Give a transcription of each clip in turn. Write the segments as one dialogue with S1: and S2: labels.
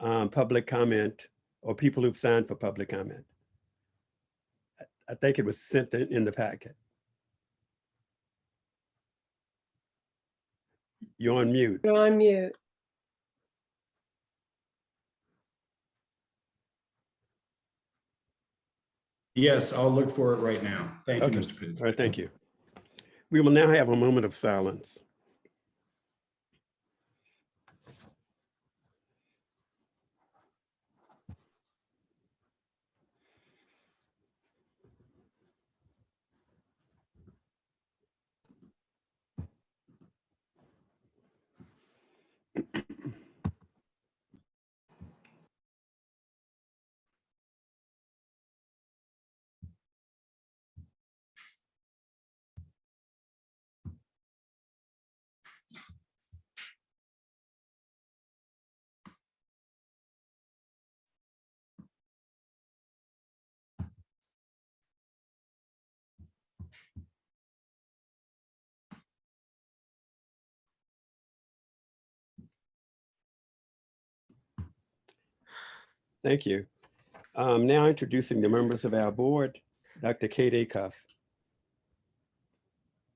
S1: um, public comment or people who've signed for public comment. I- I think it was sent in in the packet. You're on mute.
S2: You're on mute.
S3: Yes, I'll look for it right now. Thank you,
S1: Okay.
S3: Mr. Page.
S1: All right, thank you. We will now have a moment of silence. Thank you. Um, Now introducing the members of our board, Dr. Kate Acuff.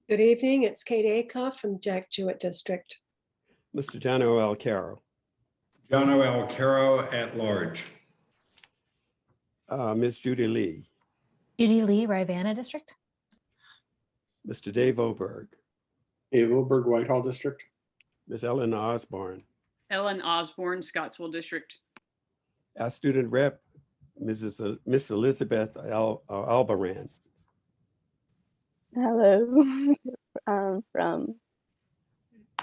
S2: Good evening. It's Kate Acuff from Jack Jewett District.
S1: Mr. John O.L. Carroll,
S3: John O. Alcaro at large.
S1: uh, Ms. Judy Lee,
S4: Judy Lee, Rivanna District.
S1: Mr. Dave Oberg,
S5: Dave Oberg, Whitehall District.
S1: Ms. Eleanor Osborne,
S6: Ellen Osborne, Scottsville District.
S1: our student rep, Mrs. El- Miss Elizabeth Al- uh, Albaran,
S7: Hello, um, from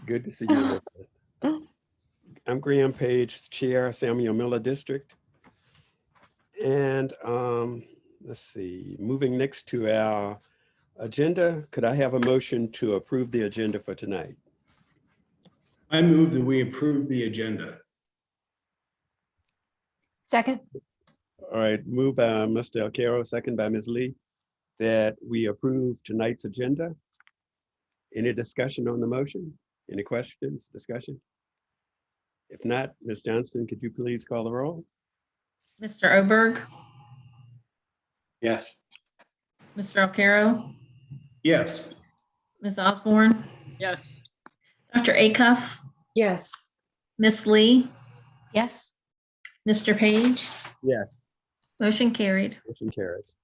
S1: good to see you. Elizabeth. I'm Graham Page, Chair, Samuel Miller District. And um, let's see, moving next to our agenda, could I have a motion to approve the agenda for tonight?
S3: I move that we approve the agenda.
S4: Second,
S1: All right, moved by Mr. Alcarro, second by Ms. Lee, that we approve tonight's agenda. Any discussion on the motion? Any questions, discussion? If not, Ms. Johnston, could you please call the roll?
S8: Mr. Oberg,
S5: Yes.
S8: Mr. Alcarro,
S3: Yes,
S8: Ms. Osborne,
S6: Yes,
S8: Dr. Acuff,
S2: Yes,
S8: Ms. Lee,
S4: yes.
S8: Mr. Page.
S1: Yes.
S8: Motion carried.
S1: Motion carries.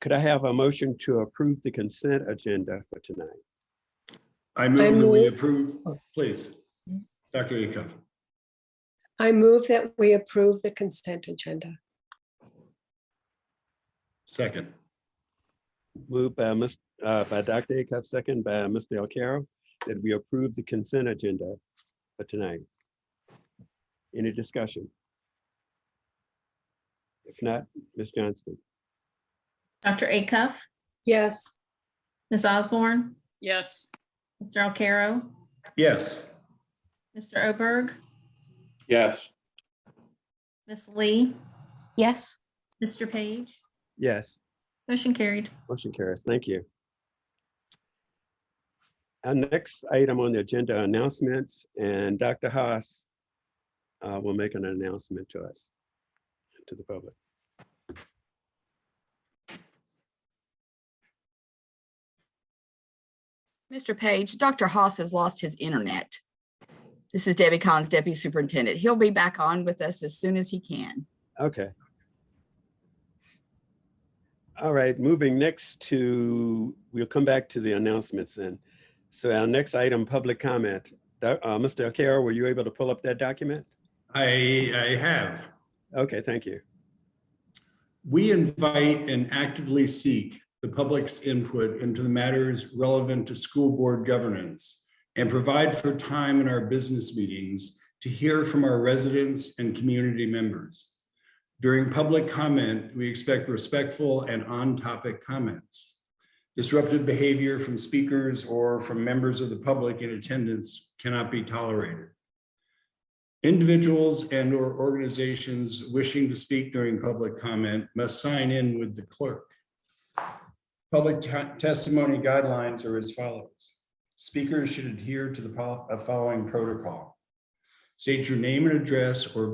S1: Could I have a motion to approve the consent agenda for tonight?
S3: I move that we
S2: move-
S3: approve, please. Dr. Acuff,
S2: I move that we approve the consent agenda.
S3: second.
S1: Moved by Ms., uh, by Dr. Acuff, second by Mr. Alcarro, that we approve the consent agenda for tonight. Any discussion? If not, Ms. Johnston,
S8: Dr. Acuff,
S2: Yes,
S8: Ms. Osborne,
S6: yes,
S8: Mr. Alcarro,
S3: Yes,
S8: Mr. Oberg,
S5: Yes.
S8: Ms. Lee,
S4: Yes,
S8: Mr. Page.
S1: yes,
S8: Motion carried.
S1: motion carries. Thank you. Our next item on the agenda, are announcements, and Dr. Haas uh, will make an announcement to us, to the public.
S9: Mr. Page, Dr. Haas has lost his internet. This is Debbie Collins, Deputy Superintendent. He'll be back on with us as soon as he can.
S1: Okay. All right, moving next to, we'll come back to the announcements then. So our next item, public comment. Do- uh, Mr. Akara, were you able to pull up that document?
S3: I, I have.
S1: Okay, thank you.
S3: We invite and actively seek the public's input into the matters relevant to school board governance and provide for time in our business meetings to hear from our residents and community members. During public comment, we expect respectful and on-topic comments. Disruptive behavior from speakers or from members of the public in attendance cannot be tolerated. Individuals and or organizations wishing to speak during public comment must sign in with the clerk. Public te- testimony guidelines are as follows. Speakers should adhere to the pol- uh, following protocol. State your name and address or